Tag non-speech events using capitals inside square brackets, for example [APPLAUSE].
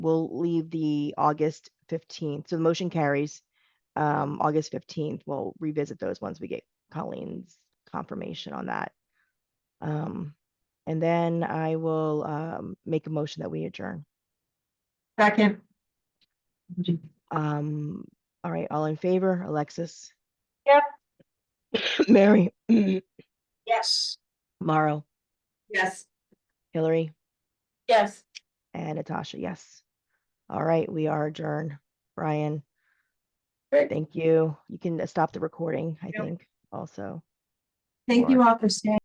we'll leave the August fifteenth. So the motion carries. Um, August fifteenth, we'll revisit those once we get Colleen's confirmation on that. Um, and then I will, um, make a motion that we adjourn. Second. Um, all right, all in favor, Alexis? Yep. [COUGHS] Mary, Yes. Mauro, Yes. Hillary, Yes. and Natasha, yes. All right, we are adjourned. Brian, Great. thank you. You can uh, stop the recording, I Yep. think, also. Thank you all for staying.